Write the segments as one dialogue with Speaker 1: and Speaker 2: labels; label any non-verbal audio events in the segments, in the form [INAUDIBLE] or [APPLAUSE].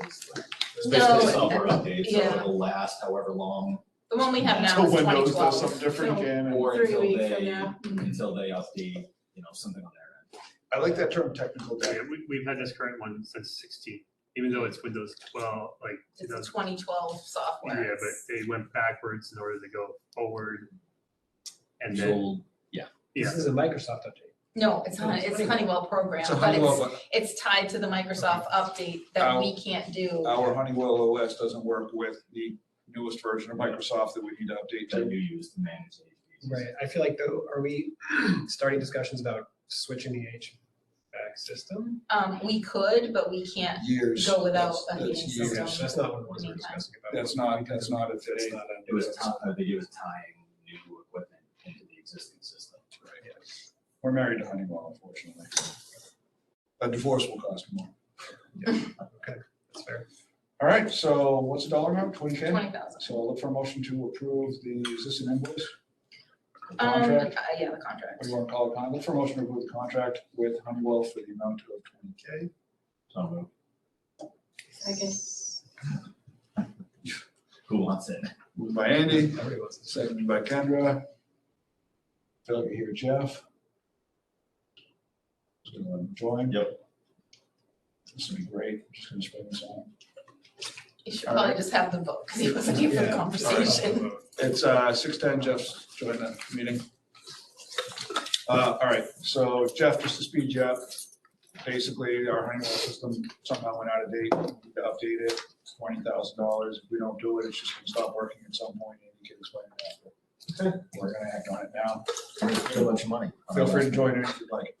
Speaker 1: It's basically
Speaker 2: No,
Speaker 1: software updates, so
Speaker 2: yeah.
Speaker 1: it'll last however long,
Speaker 2: The one we have now
Speaker 3: Until
Speaker 2: is twenty
Speaker 3: Windows does
Speaker 2: twelve.
Speaker 3: something different
Speaker 2: No.
Speaker 3: again, and
Speaker 1: or
Speaker 2: Three
Speaker 1: until
Speaker 2: weeks from
Speaker 1: they,
Speaker 2: now.
Speaker 1: until they update, you know, something on their
Speaker 3: I like that term, technical
Speaker 4: Yeah,
Speaker 3: debt.
Speaker 4: we, we've had this current one since sixteen, even though it's Windows twelve, like,
Speaker 2: It's
Speaker 4: yeah,
Speaker 2: a twenty twelve software.
Speaker 4: but they went backwards in order to go forward. And
Speaker 1: end.
Speaker 4: then,
Speaker 1: You'll-
Speaker 4: yeah,
Speaker 5: This is a Microsoft update.
Speaker 2: No, it's Hun, it's Honeywell program,
Speaker 6: It's a
Speaker 2: but it's,
Speaker 6: Honeywell, Oh.
Speaker 2: it's tied to the Microsoft update that
Speaker 5: Ow.
Speaker 2: we can't
Speaker 5: But
Speaker 2: do.
Speaker 5: Our Honeywell OS doesn't work with the newest version of Microsoft that we need to update
Speaker 1: that
Speaker 5: to.
Speaker 1: you use to manage these. pieces.
Speaker 6: right, I feel like though, are we starting discussions about switching the HVAC system?
Speaker 2: Um, we could, but we can't
Speaker 5: Years.
Speaker 2: go without
Speaker 5: That's-
Speaker 2: a heating
Speaker 5: that's years.
Speaker 2: system.
Speaker 6: So That's not what it was we're discussing about.
Speaker 5: That's not, that's not a
Speaker 6: That's
Speaker 5: today.
Speaker 6: not
Speaker 1: It was, ti- uh, I think it was tying new equipment into the existing system.
Speaker 5: We're married to Honeywell, unfortunately. A divorce will cost more.
Speaker 6: That's fair.
Speaker 5: All right, so what's the dollar amount? Twenty K?
Speaker 2: Twenty thousand.
Speaker 5: So I'll look for a motion to approve the existing invoice. the
Speaker 2: Um, uh,
Speaker 5: Contract,
Speaker 2: yeah, the contract.
Speaker 5: we want to call it, con- look for a motion to approve the contract with Honeywell for the amount of twenty K.
Speaker 1: So moved. Who wants it?
Speaker 5: Moved by Andy,
Speaker 6: Everybody wants to say.
Speaker 5: Seconded by Kendra. Feel like I hear Jeff. Just gonna let him join.
Speaker 1: Yep.
Speaker 5: This will be great. Just gonna spin this on.
Speaker 2: You should probably just have the vote, because he wasn't here for the
Speaker 5: Yeah.
Speaker 2: conversation.
Speaker 5: It's uh six ten, Jeff's joined the meeting. Uh, all right, so Jeff, just to speed you up, basically our Honeywell system somehow went out of date, We need to update it, twenty thousand dollars. If we don't do it, it's just gonna stop working at some point, and you can explain that. but We're gonna act on it now.
Speaker 1: Too much money.
Speaker 5: Feel free to join in if you'd like,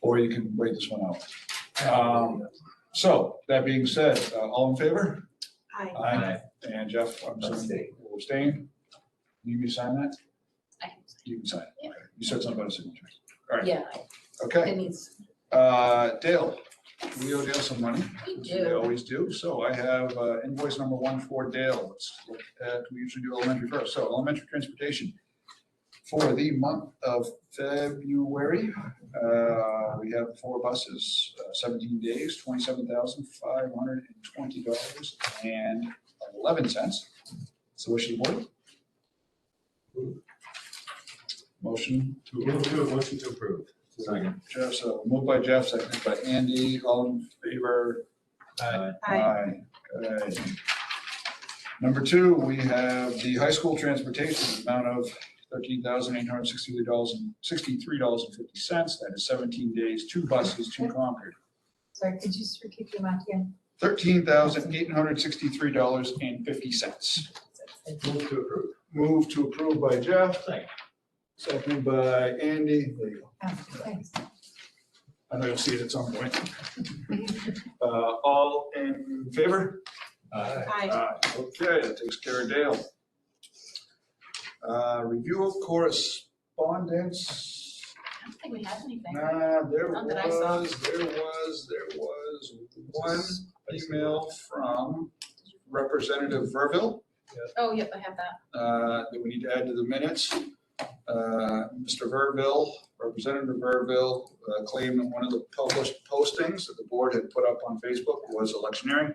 Speaker 5: or you can wait this one out. Um, So, that being said, uh, all in favor?
Speaker 2: Aye.
Speaker 5: And Jeff, I'm assuming will abstain. You can sign that?
Speaker 2: I-
Speaker 5: You can sign. it.
Speaker 2: Yeah.
Speaker 5: Okay. You said something about a signature.
Speaker 2: [LAUGHS] Yeah,
Speaker 5: Okay,
Speaker 2: it needs,
Speaker 5: uh, Dale, we owe Dale some money.
Speaker 2: we
Speaker 5: We
Speaker 2: do.
Speaker 5: always do. So I have uh, invoice number one for Dale. Let's look at, we usually do elementary first. So elementary transportation for the month of February, uh, we have four buses, uh, seventeen days, twenty-seven thousand five hundred and twenty dollars and eleven cents. So wish of the board. Motion to approve.
Speaker 1: motion to approve. Second.
Speaker 5: Jeff, so uh, moved by Jeff, seconded by Andy. All in favor,
Speaker 1: Aye.
Speaker 5: Aye. Good. Number two, we have the high school transportation amount of thirteen thousand eight hundred sixty-three dollars and sixty-three dollars and fifty cents. That is seventeen days, two buses, two Concord.
Speaker 7: Sorry, could you just repeat the amount again?
Speaker 5: Thirteen thousand eight hundred sixty-three dollars and fifty cents.
Speaker 1: Move to approve.
Speaker 5: Move to approve by Jeff,
Speaker 1: Second.
Speaker 5: seconded by Andy. There you go.
Speaker 7: Oh, thanks.
Speaker 5: I know you'll see it at some point.
Speaker 1: [LAUGHS]
Speaker 5: Uh, all in favor?
Speaker 6: Aye.
Speaker 7: Hi.
Speaker 5: Aye. Okay, that takes care of Dale. Uh, Review of correspondence.
Speaker 2: I don't think we have anything.
Speaker 5: Nah, there
Speaker 2: Not that I saw.
Speaker 5: was, there was, there was one email from Representative Verville
Speaker 2: Oh, yep, I have that.
Speaker 5: uh, that we need to add to the minutes. Uh, Mr. Verville, Representative Verville uh, claimed that one of the published postings that the board had put up on Facebook was electioneering.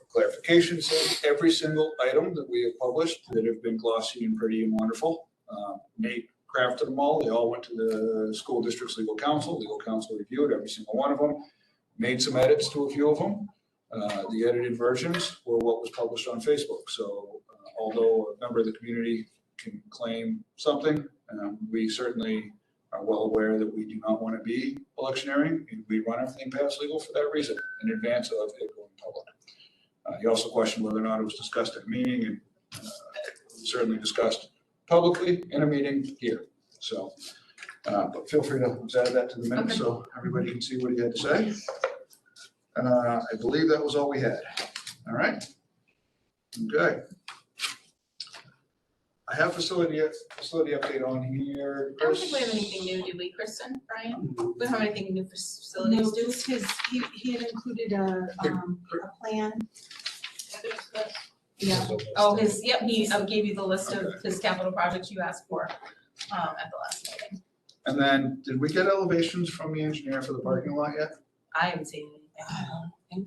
Speaker 5: For clarification, says every single item that we have published that have been glossy and pretty and wonderful. uh, Nate crafted them all. They all went to the school district's legal counsel. Legal counsel reviewed every single one of them, made some edits to a few of them. Uh, The edited versions were what was published on Facebook. So uh, although a member of the community can claim something, um, we certainly are well aware that we do not want to be electioneering. and We run everything past legal for that reason, in advance of it going public. Uh, He also questioned whether or not it was discussed at a meeting and uh, certainly discussed publicly in a meeting here. So, uh, but feel free to add that to the minutes so everybody can see what he had to say. Uh, I believe that was all we had. All right? Okay. I have facility, facility update on here.
Speaker 2: I don't think we have
Speaker 5: Chris?
Speaker 2: anything new, do we, Kristen, Brian? We don't have anything new for facilities,
Speaker 7: No,
Speaker 2: do
Speaker 7: just his, he, he had included a, um, a plan,
Speaker 2: we?
Speaker 7: yeah,
Speaker 2: Oh, his, yep, he uh, gave you the list of
Speaker 5: Okay.
Speaker 2: his capital projects you asked for um, at the last meeting.
Speaker 5: And then, did we get elevations from the engineer for the parking lot yet?
Speaker 2: I haven't seen anything.